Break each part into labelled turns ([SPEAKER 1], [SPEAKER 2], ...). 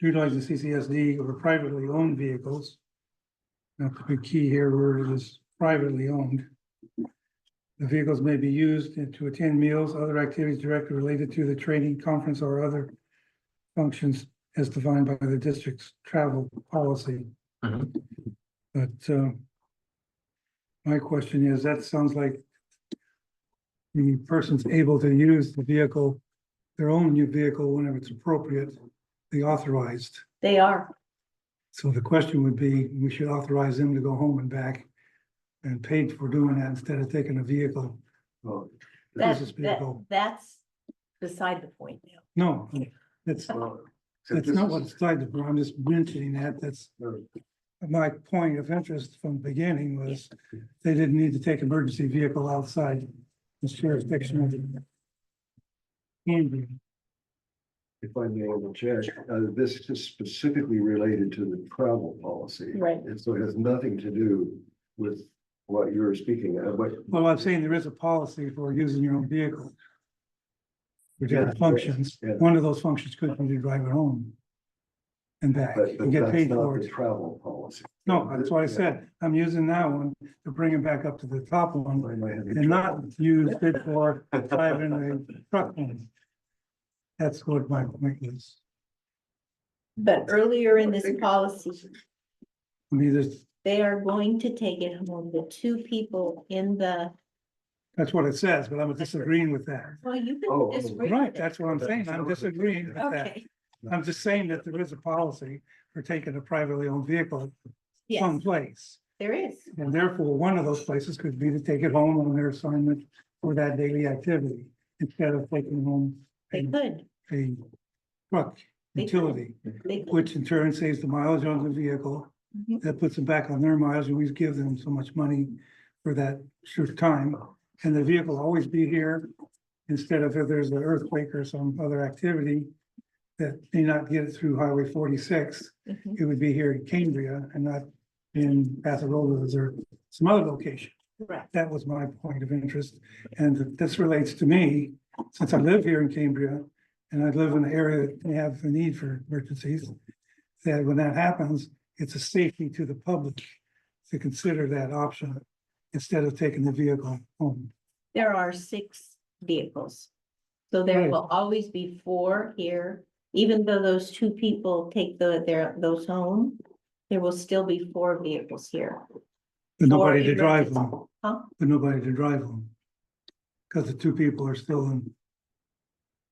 [SPEAKER 1] utilize the CCSD over privately owned vehicles. That's the big key here, where it is privately owned. The vehicles may be used to attend meals, other activities directly related to the training, conference, or other functions as defined by the district's travel policy.
[SPEAKER 2] Mhm.
[SPEAKER 1] But um, my question is, that sounds like the person's able to use the vehicle, their own new vehicle whenever it's appropriate, they authorized.
[SPEAKER 3] They are.
[SPEAKER 1] So the question would be, we should authorize them to go home and back and paid for doing that instead of taking a vehicle.
[SPEAKER 4] Well,
[SPEAKER 3] That,
[SPEAKER 1] business
[SPEAKER 3] that,
[SPEAKER 1] vehicle.
[SPEAKER 3] that's beside the point now.
[SPEAKER 1] No, that's,
[SPEAKER 3] Oh.
[SPEAKER 4] well, so
[SPEAKER 1] that's
[SPEAKER 4] this
[SPEAKER 1] not
[SPEAKER 4] is-
[SPEAKER 1] what's cited, but I'm just mentioning that, that's my point of interest from the beginning was they didn't need to take emergency vehicle outside the jurisdiction of the Camden.
[SPEAKER 4] If I may interject, uh, this is specifically related to the travel policy.
[SPEAKER 3] Right.
[SPEAKER 4] And so it has nothing to do with what you're speaking of, but.
[SPEAKER 1] Well, I'm saying there is a policy for using your own vehicle. For
[SPEAKER 4] Yeah,
[SPEAKER 1] different functions,
[SPEAKER 4] yeah.
[SPEAKER 1] one of those functions could be to drive it home. And back,
[SPEAKER 4] But
[SPEAKER 1] and
[SPEAKER 4] but
[SPEAKER 1] get
[SPEAKER 4] that's
[SPEAKER 1] paid
[SPEAKER 4] not
[SPEAKER 1] for
[SPEAKER 4] the
[SPEAKER 1] it.
[SPEAKER 4] travel policy.
[SPEAKER 1] No, that's what I
[SPEAKER 4] Yeah.
[SPEAKER 1] said, I'm using that one to bring it back up to the top one,
[SPEAKER 4] I might have
[SPEAKER 1] and not use it for driving the truck. one. That's what my point is,
[SPEAKER 3] But earlier in this policy,
[SPEAKER 1] I mean, there's,
[SPEAKER 3] they are going to take it home, the two people in the,
[SPEAKER 1] that's what it says, but I'm disagreeing with that.
[SPEAKER 3] well, you
[SPEAKER 4] Oh,
[SPEAKER 3] can disagree.
[SPEAKER 1] Right,
[SPEAKER 3] with it.
[SPEAKER 1] that's what I'm saying, I'm disagreeing with that,
[SPEAKER 3] Okay,
[SPEAKER 1] I'm just saying that there is a policy for taking a privately owned vehicle
[SPEAKER 3] yes,
[SPEAKER 1] someplace.
[SPEAKER 3] there is.
[SPEAKER 1] And therefore, one of those places could be to take it home on their assignment for that daily activity instead of taking home
[SPEAKER 3] They
[SPEAKER 1] a,
[SPEAKER 3] could,
[SPEAKER 1] a truck
[SPEAKER 3] They could.
[SPEAKER 1] utility,
[SPEAKER 3] they could.
[SPEAKER 1] which in turn saves the mileage on the vehicle.
[SPEAKER 3] Mhm.
[SPEAKER 1] That puts them back on their miles. and We give them so much money for that short time. And the vehicle always be here instead of if there's an earthquake or some other activity that may not get it through Highway forty-six
[SPEAKER 3] Mhm.
[SPEAKER 1] it would be here in Cambria and not in Bathrolas or some other location.
[SPEAKER 3] Correct.
[SPEAKER 1] That was my point of interest. And this relates to me, since I live here in Cambria and I live in an area that may have a need for emergencies, that when that happens, it's a safety to the public to consider that option instead of taking the vehicle home.
[SPEAKER 3] There are six vehicles. So there
[SPEAKER 1] Right.
[SPEAKER 3] will always be four here, even though those two people take the, their, those home. There will still be four vehicles here.
[SPEAKER 1] With
[SPEAKER 3] Or
[SPEAKER 1] nobody to drive
[SPEAKER 3] emergency.
[SPEAKER 1] them,
[SPEAKER 3] Huh?
[SPEAKER 1] with nobody to drive them. Because the two people are still in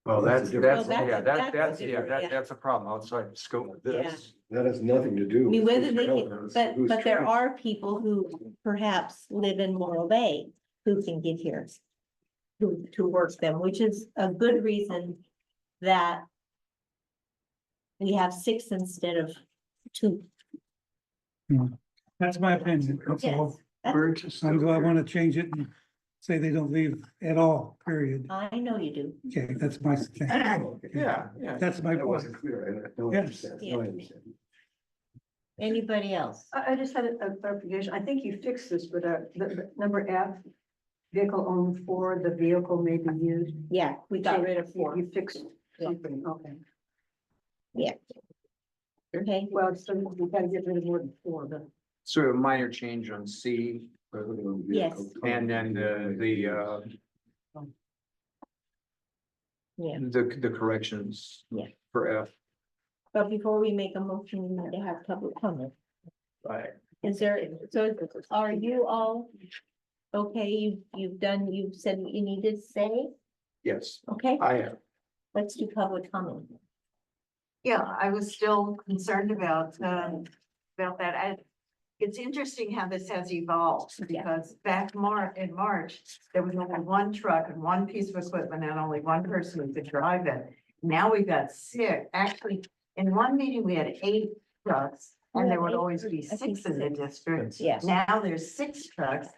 [SPEAKER 2] Well, that's,
[SPEAKER 4] No,
[SPEAKER 2] that's,
[SPEAKER 3] that's a-
[SPEAKER 2] yeah,
[SPEAKER 3] that's a
[SPEAKER 2] that, that's, yeah,
[SPEAKER 3] different- yeah.
[SPEAKER 2] that, that's a problem outside the scope of this.
[SPEAKER 4] That has nothing to do.
[SPEAKER 3] I mean,
[SPEAKER 4] with
[SPEAKER 3] whether
[SPEAKER 4] who's
[SPEAKER 3] they
[SPEAKER 4] traveling,
[SPEAKER 3] can,
[SPEAKER 4] it's
[SPEAKER 3] but,
[SPEAKER 4] who's
[SPEAKER 3] but there
[SPEAKER 4] traveling.
[SPEAKER 3] are people who perhaps live in Morro Bay who can get here. To, to work them, which is a good reason that. We have six instead of two.
[SPEAKER 1] That's my opinion, that's all.
[SPEAKER 3] Yes.
[SPEAKER 4] We're just-
[SPEAKER 1] I'm glad I want to change it and say they don't leave at all, period.
[SPEAKER 3] I know you do.
[SPEAKER 1] Okay, that's my thing.
[SPEAKER 2] Yeah, yeah.
[SPEAKER 1] That's my
[SPEAKER 4] That
[SPEAKER 1] point.
[SPEAKER 4] wasn't clear. I don't
[SPEAKER 1] Yes.
[SPEAKER 4] understand. No, I understand.
[SPEAKER 3] Anybody else?
[SPEAKER 5] I, I just had a a clarification. I think you fixed this with a, the, the number F. Vehicle owned for the vehicle may be used.
[SPEAKER 3] Yeah, we got rid of
[SPEAKER 5] You-
[SPEAKER 3] four.
[SPEAKER 5] You fixed something, okay.
[SPEAKER 3] Okay,
[SPEAKER 5] Well, so we gotta get rid of more than four, but.
[SPEAKER 2] So a minor change on C
[SPEAKER 4] President of the
[SPEAKER 3] Yes.
[SPEAKER 4] vehicle.
[SPEAKER 2] and then the, the, uh,
[SPEAKER 3] yeah,
[SPEAKER 2] the, the corrections.
[SPEAKER 3] Yeah.
[SPEAKER 2] For F.
[SPEAKER 3] but before we make a motion, we need to have public comment.
[SPEAKER 2] Right.
[SPEAKER 3] Is there, so are you all? Okay, you, you've done, you've said what you needed to say,
[SPEAKER 2] Yes,
[SPEAKER 3] okay?
[SPEAKER 2] I have.
[SPEAKER 3] Let's do public comment.
[SPEAKER 6] Yeah, I was still concerned about, um, about that. I, it's interesting how this has evolved
[SPEAKER 3] Yeah.
[SPEAKER 6] because back Mar, in March, there was only one truck and one piece of equipment and only one person could drive it. Now we've got six, actually, in one meeting, we had eight trucks and there would always be
[SPEAKER 3] I think
[SPEAKER 6] six in the district.
[SPEAKER 3] Yes.
[SPEAKER 6] Now there's six trucks,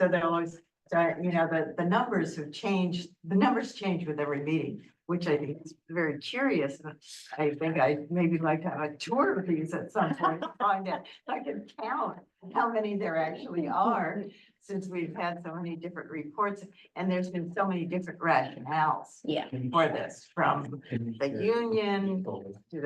[SPEAKER 6] so they're always, so, you know, the, the numbers have changed, the numbers change with every meeting, which I think is very curious. and I think I maybe like to have a tour of these at some point, to find out, if I can count how many there actually are, since we've had so many different reports, and there's been so many different rationales
[SPEAKER 3] Yeah.
[SPEAKER 2] Oh.
[SPEAKER 6] for this, from the union